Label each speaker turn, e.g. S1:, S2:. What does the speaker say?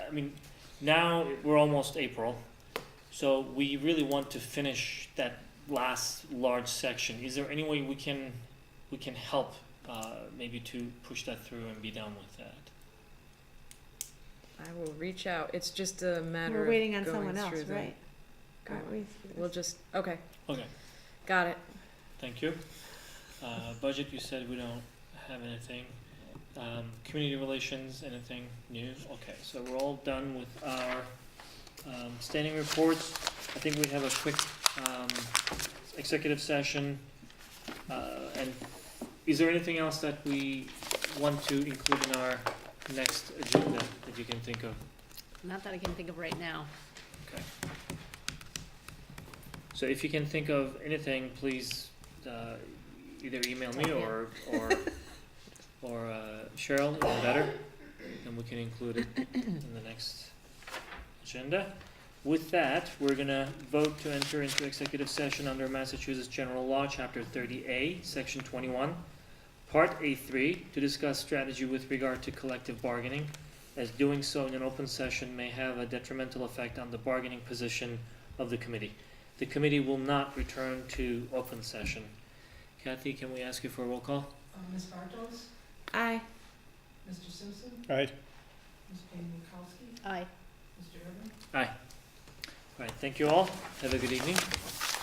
S1: I mean, now we're almost April, so we really want to finish that last large section. Is there any way we can, we can help, uh, maybe to push that through and be done with that?
S2: I will reach out. It's just a matter
S3: We're
S2: of
S3: waiting on
S2: going
S3: someone else,
S2: through the- Oh,
S3: right? Aren't we?
S2: We'll just, okay,
S1: Okay,
S2: got it.
S1: thank you. Uh, budget, you said we don't have anything. Um, community relations, anything new? Okay, so we're all done with our, um, standing reports. I think we have a quick, um, executive session. Uh, and is there anything else that we want to include in our next agenda that you can think of?
S4: Not that I can think of right now.
S1: So if you can think of anything, please, uh, either email me or, or, or uh, Cheryl, even better, and we can include it in the next agenda. With that, we're gonna vote to enter into executive session under Massachusetts General Law, Chapter thirty A, Section twenty-one, Part A three, to discuss strategy with regard to collective bargaining, as doing so in an open session may have a detrimental effect on the bargaining position of the committee. The committee will not return to open session. Kathy, can we ask you for a roll call?
S3: Ms. Bartels? Aye.
S5: Aye.
S4: Aye.
S1: All right, thank you all. Have a good evening.